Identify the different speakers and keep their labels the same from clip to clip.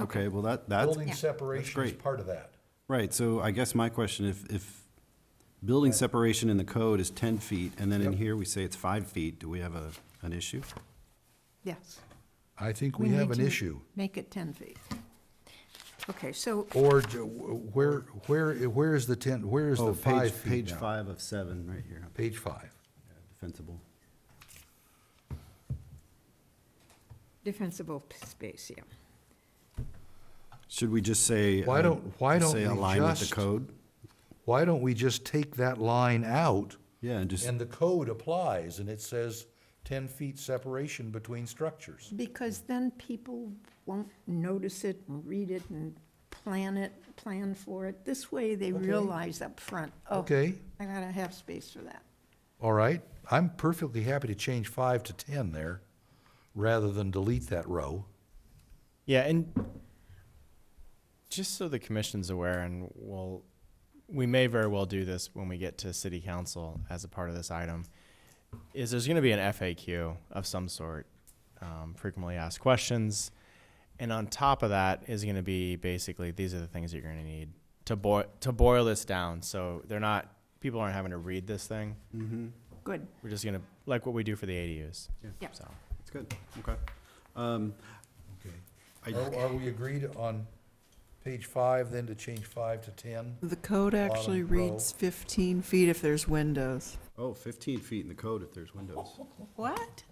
Speaker 1: Okay, well, that, that's,
Speaker 2: Building
Speaker 3: Yeah.
Speaker 2: separation is
Speaker 1: great.
Speaker 2: part of that.
Speaker 1: right, so I guess my question, if, if building separation in the code is ten feet, and then in
Speaker 2: Yep.
Speaker 1: here we say it's five feet, do we have a, an issue?
Speaker 3: Yes.
Speaker 2: I think we have
Speaker 3: need
Speaker 2: an
Speaker 3: to
Speaker 2: issue.
Speaker 3: Make it 10 feet. Okay, so,
Speaker 2: Or j- wh- where, where, where is the ten, where is
Speaker 1: Oh,
Speaker 2: the
Speaker 1: page,
Speaker 2: five feet
Speaker 1: page
Speaker 2: now?
Speaker 1: five of seven, right here,
Speaker 2: Page five.
Speaker 1: defensible.
Speaker 3: defensible p- space, yeah.
Speaker 1: Should we just say?
Speaker 2: Why
Speaker 1: uh,
Speaker 2: don't- why don't
Speaker 1: Say
Speaker 2: we
Speaker 1: align with the
Speaker 2: just-
Speaker 1: code?
Speaker 2: Why don't we just take that line out
Speaker 1: Yeah, and just,
Speaker 2: and the code applies and it says ten feet separation between structures?
Speaker 3: Because then people won't notice it and read it and plan it, plan for it. This way, they
Speaker 2: Okay.
Speaker 3: realize up front. oh,
Speaker 2: Okay,
Speaker 3: I gotta have space for that.
Speaker 2: all right. I'm perfectly happy to change five to ten there rather than delete that row.
Speaker 4: Yeah, and just so the commission's aware, and we'll, we may very well do this when we get to city council as a part of this item, is there's going to be an FAQ of some sort, um, frequently asked questions. And on top of that is going to be basically, these are the things that you're going to need to boil, to boil this down. So they're not, people aren't having to read this thing.
Speaker 3: Good.
Speaker 4: We're just going to, like what we do for the ADUs.
Speaker 3: Yeah.
Speaker 4: So.
Speaker 1: it's good, okay. Um, I-
Speaker 2: Okay. Are, are we agreed on page five then to change five to ten?
Speaker 5: The code actually
Speaker 2: Bottom row.
Speaker 5: reads 15 feet if there's windows.
Speaker 1: Oh, fifteen feet in the code if there's windows.
Speaker 5: What?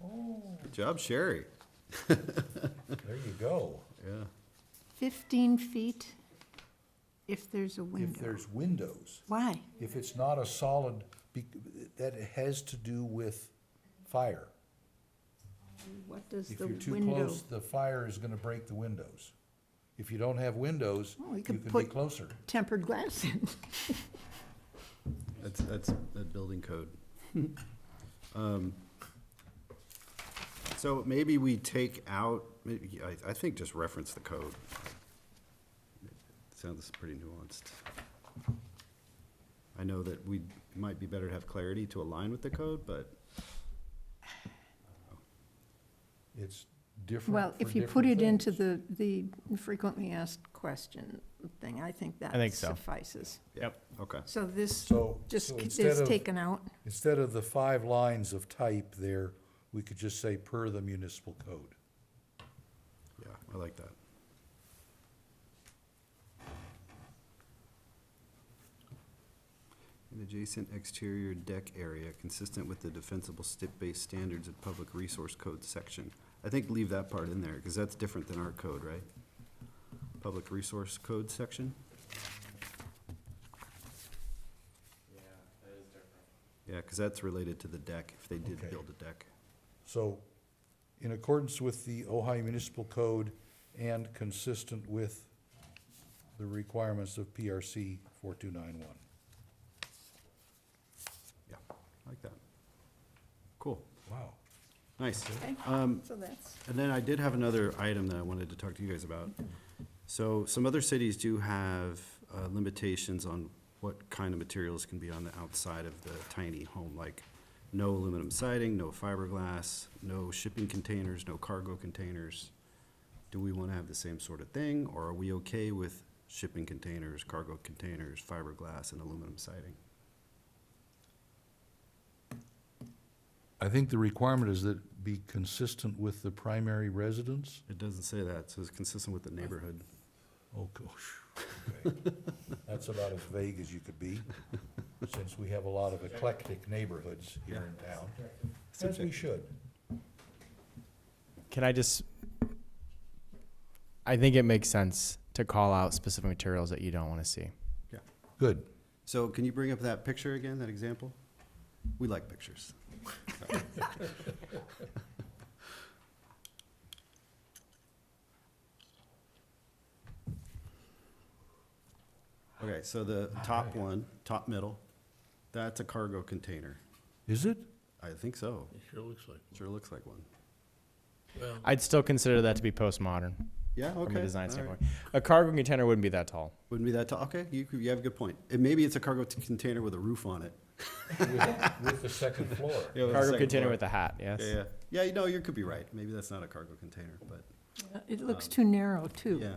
Speaker 1: Good job, Sherry.
Speaker 2: There you go.
Speaker 1: Yeah.
Speaker 3: 15 feet if there's a
Speaker 2: If
Speaker 3: window.
Speaker 2: there's windows,
Speaker 3: Why?
Speaker 2: if it's not a solid, be- that has to do with fire.
Speaker 3: What does
Speaker 2: If
Speaker 3: the
Speaker 2: you're
Speaker 3: window?
Speaker 2: too close, the fire is gonna break the windows. If you don't have windows,
Speaker 3: Well, we
Speaker 2: you
Speaker 3: could
Speaker 2: can be
Speaker 3: put-
Speaker 2: closer.
Speaker 3: Tempered glass in.
Speaker 1: That's, that's, that building code. Um, So maybe we take out, maybe, I, I think just reference the code. Sounds pretty nuanced. I know that we, might be better to have clarity to align with the code, but
Speaker 2: It's different
Speaker 3: Well,
Speaker 2: for
Speaker 3: if you put it
Speaker 2: different
Speaker 3: into
Speaker 2: things.
Speaker 3: the, the frequently asked question thing, I think
Speaker 4: think
Speaker 3: that
Speaker 4: so.
Speaker 3: suffices.
Speaker 4: Yep.
Speaker 1: Okay,
Speaker 3: So this
Speaker 2: So-
Speaker 3: just
Speaker 2: so
Speaker 3: is
Speaker 2: instead of-
Speaker 3: taken out.
Speaker 2: Instead of the five lines of type there, we could just say per the municipal code.
Speaker 1: yeah, I like that. An adjacent exterior deck area consistent with the defensible stip-based standards of public resource code section. I think leave that part in there, because that's different than our code, right? Public resource code section? Yeah, because that's related to the deck, if they did
Speaker 2: Okay.
Speaker 1: build a deck.
Speaker 2: So, in accordance with the Ohio Municipal Code and consistent with the requirements of PRC 4291.
Speaker 1: Yeah, I like that. Cool,
Speaker 2: Wow.
Speaker 1: nice.
Speaker 3: Okay,
Speaker 1: Um,
Speaker 3: so that's,
Speaker 1: And then I did have another item that I wanted to talk to you guys about. So some other cities do have uh, limitations on what kind of materials can be on the outside of the tiny home, like no aluminum siding, no fiberglass, no shipping containers, no cargo containers. Do we want to have the same sort of thing, or are we okay with shipping containers, cargo containers, fiberglass, and aluminum siding?
Speaker 2: I think the requirement is that be consistent with the primary residence.
Speaker 1: It doesn't say that, so it's consistent with the neighborhood.
Speaker 2: Oh, gosh. okay. That's about as vague as you could be, since we have a lot of eclectic neighborhoods here in town, as we should.
Speaker 4: Can I just? I think it makes sense to call out specific materials that you don't want to see.
Speaker 2: Good.
Speaker 1: So can you bring up that picture again, that example? We like pictures. Okay, so the top one, top middle, that's a cargo container.
Speaker 2: Is it?
Speaker 1: I think so.
Speaker 6: It sure looks like.
Speaker 1: Sure looks like one.
Speaker 6: Well,
Speaker 4: I'd still consider that to be postmodern
Speaker 1: Yeah, okay.
Speaker 4: from a design
Speaker 1: all right.
Speaker 4: standpoint. A cargo container wouldn't be that tall.
Speaker 1: Wouldn't be that tall. Okay, you, could- you have a good point. And maybe it's a cargo t- container with a roof on it.
Speaker 2: With- With the second floor.
Speaker 1: Yeah, with a
Speaker 4: cargo
Speaker 1: second
Speaker 4: container
Speaker 1: floor.
Speaker 4: with a hat. Yes.
Speaker 1: Yeah, yeah. Yeah, you know, you could be right. Maybe that's not a cargo container, but
Speaker 3: it looks too narrow, too.
Speaker 1: yeah.